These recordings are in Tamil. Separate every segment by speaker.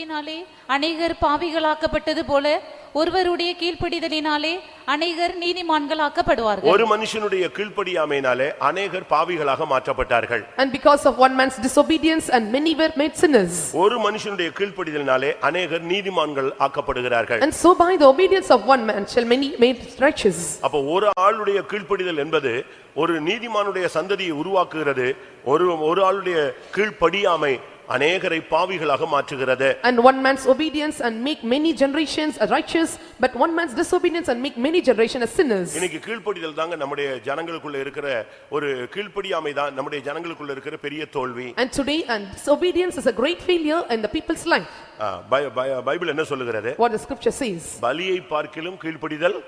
Speaker 1: கீழ்ப்படிதலினாலே அநேகர் பாவிகளாக்கப்பட்டது போல ஒருவருடைய கீழ்ப்படிதலினாலே அநேகர் நீதிமான்களாக்கப்படுவார்கள்
Speaker 2: ஒரு மனுஷனுடைய கீழ்ப்படியாமையினாலே அநேகர் பாவிகளாக மாற்றப்பட்டார்கள்
Speaker 3: And because of one man's disobedience and many were made sinners.
Speaker 2: ஒரு மனுஷனுடைய கீழ்ப்படிதலினாலே அநேகர் நீதிமான்கள் ஆக்கப்படுகிறார்கள்
Speaker 3: And so by the obedience of one man shall many made righteous.
Speaker 2: அப்போ ஒரு ஆளுடைய கீழ்ப்படிதல் என்பது ஒரு நீதிமானுடைய சந்ததியை உருவாக்குகிறது ஒரு ஒரு ஆளுடைய கீழ்ப்படியாமை அநேகரை பாவிகளாக மாற்றுகிறது
Speaker 3: And one man's obedience and make many generations as righteous, but one man's disobedience and make many generations as sinners.
Speaker 2: இன்னைக்கு கீழ்ப்படிதல் தாங்க நம்முடைய ஜனங்களுக்குள்ள இருக்கிற ஒரு கீழ்ப்படியாமை தான் நம்முடைய ஜனங்களுக்குள்ள இருக்கிற பெரிய தோல்வி
Speaker 3: And today and disobedience is a great failure in the people's life.
Speaker 2: ஆ, பை- பை- பைபிள் என்ன சொல்லுகிறது
Speaker 3: What the scripture says.
Speaker 2: பலியை பார்க்கிலும் கீழ்ப்படிதல்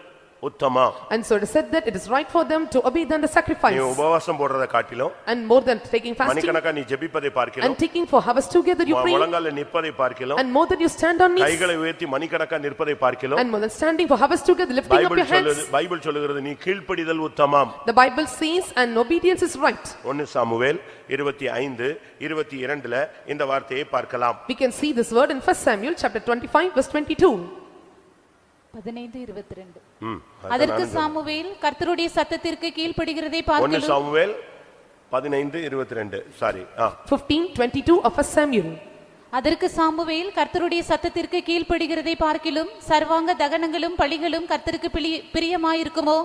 Speaker 2: உத்தமா
Speaker 3: And so it is said that it is right for them to obey than the
Speaker 2: நீ
Speaker 3: sacrifice.
Speaker 2: உபவாசம் போடுறத காட்டிலும்
Speaker 3: And more than taking fasting
Speaker 2: மணிக்கணக்கா நீ ஜெபிப்பதை பார்க்கிலும்
Speaker 3: and taking for hours together you
Speaker 2: உன்
Speaker 3: pray.
Speaker 2: முழங்கால நிற்பதை பார்க்கிலும்
Speaker 3: And more than you stand on knees.
Speaker 2: கைகளை உயர்த்தி மணிக்கணக்கா நிற்பதை பார்க்கிலும்
Speaker 3: And more than standing for hours together lifting up your
Speaker 2: Bible
Speaker 3: hands.
Speaker 2: சொல்லுது பைபிள் சொல்லுகிறது நீ கீழ்ப்படிதல் உத்தமாம்
Speaker 3: The Bible says and obedience is right.
Speaker 2: ஒன்னு சாமுவேல் இருபத்தி ஐந்து இருபத்தி இரண்டுல இந்த வார்த்தையை பார்க்கலாம்
Speaker 3: We can see this word in first Samuel chapter twenty-five verse twenty-two.
Speaker 1: பதினைந்து இருபத்தி ரெண்டு
Speaker 2: ம்,
Speaker 1: அதற்கு சாமுவேல் கர்த்தருடைய சத்தத்திற்கு கீழ்ப்படிகிறதை
Speaker 2: ஒன்னு
Speaker 1: பார்க்கலும்
Speaker 2: சாமுவேல் பதினைந்து இருபத்தி ரெண்டு சாரி ஆ
Speaker 3: Fifteen twenty-two of first Samuel.
Speaker 1: அதற்கு சாமுவேல் கர்த்தருடைய சத்தத்திற்கு கீழ்ப்படிகிறதை பார்க்கிலும் சர்வாங்க தகனங்களும் பலிகளும் கர்த்தருக்கு பிளி- பிரியமாயிருக்குமோ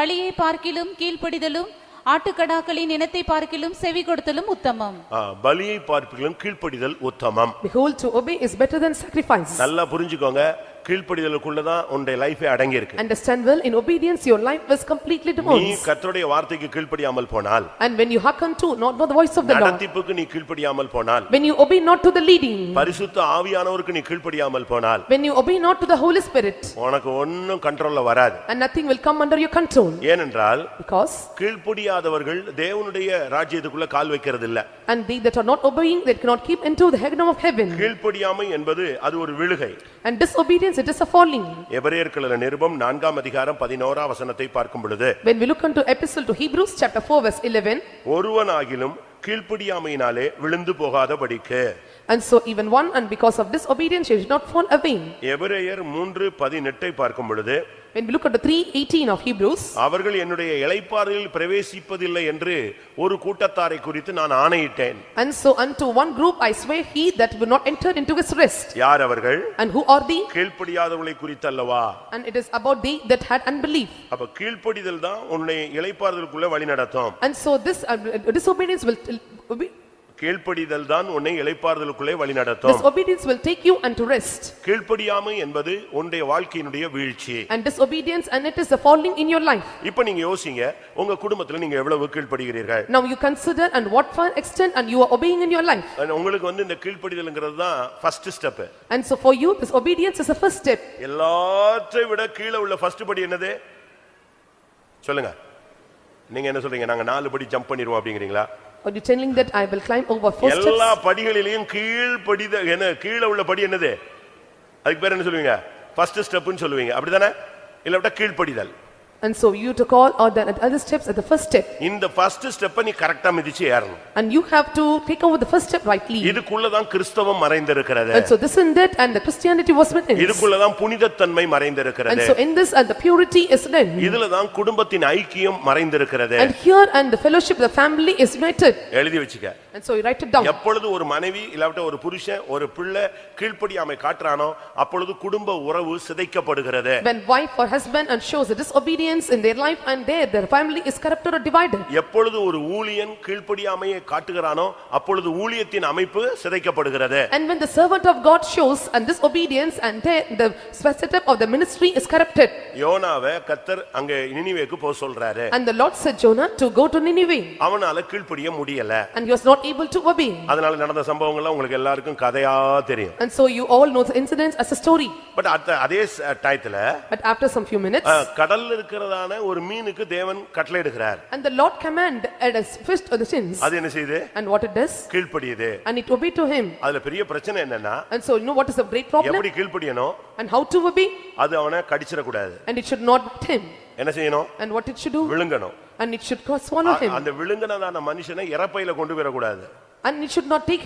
Speaker 1: பழியை பார்க்கிலும் கீழ்ப்படிதலும் ஆட்டுக்கடாக்களின் இனத்தை பார்க்கிலும் செவி கொடுத்தலும் உத்தமம்
Speaker 2: ஆ, பலியை பார்ப்பிலும் கீழ்ப்படிதல் உத்தமம்
Speaker 3: Behold, to obey is better than sacrifice.
Speaker 2: நல்லா புரிஞ்சுக்கோங்க கீழ்ப்படிதலுக்குள்ளதான் உன்னுடைய லைஃபே அடங்கி இருக்கு
Speaker 3: Understand well, in obedience your life was completely
Speaker 2: நீ
Speaker 3: devoted.
Speaker 2: கர்த்தருடைய வார்த்தைக்கு கீழ்ப்படியாமல் போனால்
Speaker 3: And when you hearken to not know the voice of the Lord,
Speaker 2: நடத்திப்புக்கு நீ கீழ்ப்படியாமல் போனால்
Speaker 3: when you obey not to the leading,
Speaker 2: பரிசுத்த ஆவியானவருக்கு நீ கீழ்ப்படியாமல் போனால்
Speaker 3: when you obey not to the Holy Spirit,
Speaker 2: உனக்கு ஒன்னும் கண்ட்ரோல்ல வராது
Speaker 3: and nothing will come under your control.
Speaker 2: ஏனென்றால்
Speaker 3: Because,
Speaker 2: கீழ்ப்படியாதவர்கள் தேவனுடைய ராஜ்யத்துக்குள்ள கால் வைக்கிறது இல்ல
Speaker 3: and they that are not obeying, they cannot keep into the kingdom of heaven.
Speaker 2: கீழ்ப்படியாமை என்பது அது ஒரு விழுகை
Speaker 3: And disobedience, it is a falling.
Speaker 2: எபிரேயர்களின் நிருபம் நான்காம் அதிகாரம் பதினோரா வசனத்தை பார்க்கும் பொழுது
Speaker 3: When we look into epistle to Hebrews chapter four verse eleven,
Speaker 2: ஒருவனாகிலும் கீழ்ப்படியாமையினாலே விழுந்து போகாதபடிக்கு
Speaker 3: And so even one and because of disobedience she did not fall away.
Speaker 2: எபிரேயர் மூன்று பதினெட்டை பார்க்கும் பொழுது
Speaker 3: When we look at the three eighteen of Hebrews,
Speaker 2: அவர்கள் என்னுடைய இளைப்பாறையில் பிரவேசிப்பதில்லை என்று ஒரு கூட்டத்தாரை குறித்து நான் ஆணையிட்டேன்
Speaker 3: and so unto one group I swear he that will not enter into his rest.
Speaker 2: யார் அவர்கள்
Speaker 3: And who are they?
Speaker 2: கீழ்ப்படியாதவர்களை குறித்தல்லவா
Speaker 3: And it is about they that had unbelief.
Speaker 2: அப்ப கீழ்ப்படிதல் தான் உன்னை இளைப்பாறுதலுக்குள்ள வழி நடத்தும்
Speaker 3: And so this uh, disobedience will, uh,
Speaker 2: கீழ்ப்படிதல் தான் உன்னை இளைப்பாறுதலுக்குள்ளே வழி நடத்தும்
Speaker 3: disobedience will take you unto rest.
Speaker 2: கீழ்ப்படியாமை என்பது உன்னுடைய வாழ்க்கையினுடைய வீழ்ச்சி
Speaker 3: And disobedience and it is the falling in your life.
Speaker 2: இப்ப நீங்க யோசிங்க உங்க குடும்பத்துல நீங்க எவ்வளவு கீழ்ப்படுகிறீர்கள்
Speaker 3: Now you consider and what far extent and you are obeying in your life.
Speaker 2: உங்களுக்கு வந்து இந்த கீழ்ப்படிதல்ங்கிறது தான் first step
Speaker 3: And so for you, this obedience is the first step.
Speaker 2: எல்லாற்றை விட கீழே உள்ள ஃபர்ஸ்ட் படி என்னது சொல்லுங்க நீங்க என்ன சொல்றீங்க நாங்க நாலு படி ஜம்ப் பண்ணிடுவோம் அப்படிங்கிறீங்களா
Speaker 3: Are you telling that I will climb over four
Speaker 2: எல்லா
Speaker 3: steps?
Speaker 2: படிகளிலையும் கீழ்படித என்ன கீழே உள்ள படி என்னது அதுக்கு பேர் என்ன சொல்லுவீங்க ஃபர்ஸ்ட் ஸ்டெப்னு சொல்லுவீங்க அப்படிதானே இல்ல விட்டா கீழ்ப்படிதல்
Speaker 3: And so you to call or the other steps at the first step.
Speaker 2: இந்த ஃபர்ஸ்ட் ஸ்டெப்பை நீ கரெக்டா மிதிச்சு ஏறணும்
Speaker 3: And you have to take over the first step rightly.
Speaker 2: இதுக்குள்ளதான் கிறிஸ்தவம் மறைந்திருக்கிறது
Speaker 3: And so this in that and the Christianity was witnessed.
Speaker 2: இதுக்குள்ளதான் புனிதத்தன்மை
Speaker 3: And
Speaker 2: மறைந்திருக்கிறது
Speaker 3: so in this and the purity is done.
Speaker 2: இதுலதான் குடும்பத்தின் ஐக்கியம் மறைந்திருக்கிறது
Speaker 3: And here and the fellowship, the family is united.
Speaker 2: எழுதி வச்சுக்க
Speaker 3: And so you write it down.
Speaker 2: எப்பொழுது ஒரு மனைவி இல்லாவிட்ட ஒரு புருஷன் ஒரு பிள்ளை கீழ்ப்படியாமை காட்டுறானோ அப்பொழுது குடும்ப உறவு சிதைக்கப்படுகிறது
Speaker 3: When wife or husband and shows a disobedience in their life and there, their family is corrupted or divided.
Speaker 2: எப்பொழுது ஒரு ஊழியன் கீழ்ப்படியாமையை காட்டுகிறானோ அப்பொழுது ஊழியத்தின் அமைப்பு சிதைக்கப்படுகிறது
Speaker 3: And when the servant of God shows and disobedience and there, the setup of the ministry is corrupted.
Speaker 2: யோனாவை கத்தர் அங்க நினிவேக்கு போக சொல்றாரு
Speaker 3: And the Lord said Jonah to go to Nineveh.
Speaker 2: அவனால கீழ்ப்படிய முடியல
Speaker 3: And he was not able to obey.
Speaker 2: அதனால நடந்த சம்பவங்கள்லாம் உங்களுக்கு எல்லாருக்கும் கதையா தெரியும்
Speaker 3: And so you all know the incidents as a story.
Speaker 2: But அத்த அதே ச- டயத்துல
Speaker 3: But after some few minutes.
Speaker 2: அஹ், கடல்ல இருக்கிறதான ஒரு மீனுக்கு தேவன் கட்டளையிடுகிறார்
Speaker 3: And the Lord command at his fist of the sins.
Speaker 2: அது என்ன செய்யுது
Speaker 3: And what it does?
Speaker 2: கீழ்ப்படியுது
Speaker 3: And it obey to him.
Speaker 2: அதுல பெரிய பிரச்சனை என்னன்னா
Speaker 3: And so you know what is the great problem?
Speaker 2: எப்படி கீழ்ப்படியணும்
Speaker 3: And how to obey?
Speaker 2: அது அவனை கடிச்சிடக்கூடாது
Speaker 3: And it should not hurt him.
Speaker 2: என்ன செய்யணும்
Speaker 3: And what it should do?
Speaker 2: விழுங்கணும்
Speaker 3: And it should not swallow
Speaker 2: a-
Speaker 3: him.
Speaker 2: அந்த விழுங்கினதான மனுஷனை இறப்பையில கொண்டு போயிடக்கூடாது
Speaker 3: And it should not take